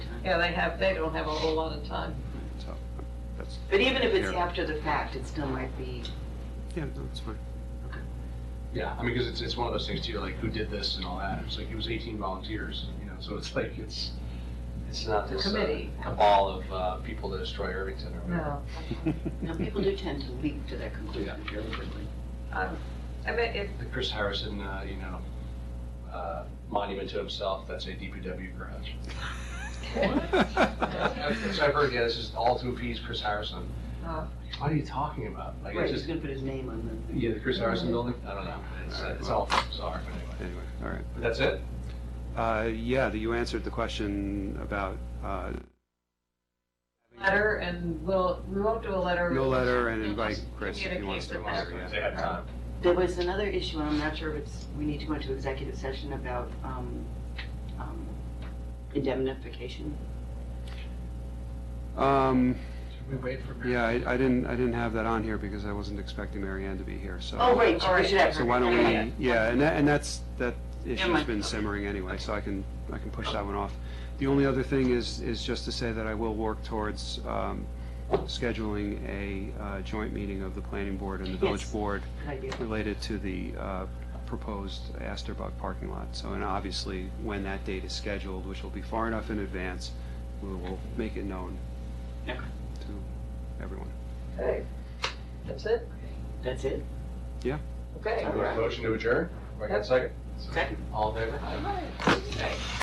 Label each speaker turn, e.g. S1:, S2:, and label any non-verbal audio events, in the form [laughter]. S1: Yeah, they have, they don't have a whole lot of time.
S2: so that's,
S3: But even if it's
S2: Yeah.
S3: after the fact, it still might be,
S2: yeah, no, that's
S3: [laughs]
S2: fine.
S4: Yeah, I mean, because it's, it's one of those things too, like who did this and all that. It's like it was 18 volunteers, you know, so it's [laughs] like it's it's not
S1: The
S4: this uh,
S1: committee.
S4: cabal of uh, people to destroy Irvington or whatever.
S1: No,
S3: now, people do tend to leap to that
S4: Yeah,
S3: conclusion.
S1: um, I mean, if,
S4: the Chris Harrison, uh, you know, uh, monument to himself. That's a DPW garage. so I've heard. Yeah, this is all to appease Chris Harrison.
S1: uh,
S4: What are you talking about? Like
S3: Right,
S4: it's
S3: he's
S4: just
S3: gonna put his name on them.
S4: yeah, the Chris Harrison building. I don't know. It's, uh, it's all bizarre. But anyway,
S2: Anyway, all right.
S4: but that's it.
S2: Uh, Yeah, you answered the question about uh,
S1: letter and we'll, we won't do a letter.
S2: no letter and invite Chris if he
S1: Communicate
S2: wants to.
S1: with them.
S2: yeah.
S4: They have time.
S3: There was another issue, and I'm not sure if it's, we need to go into executive session about um, um, indemnification.
S2: Um,
S4: Should we wait for?
S2: Yeah, I I didn't, I didn't have that on here because I wasn't expecting Mary Ann to be here, so.
S3: Oh, right,
S1: all
S3: we
S1: right.
S3: should have.
S2: So why don't
S3: Yeah,
S2: we, yeah, and that, and that's, that issue's
S3: mind.
S2: been simmering anyway, so I can, I can push that one off. The only other thing is, is just to say that I will work towards um, scheduling a uh, joint meeting of the planning board and the village
S3: Yes.
S2: board
S3: Good idea.
S2: related to the uh, proposed Asterbug parking lot. So, and obviously, when that date is scheduled, which will be far enough in advance, we will make it known
S3: Okay.
S2: to everyone.
S1: Okay. That's it?
S3: That's it?
S1: Okay.
S4: Motion to adjourn. Do I got a second?
S3: Second.
S4: All in favor?
S1: All right.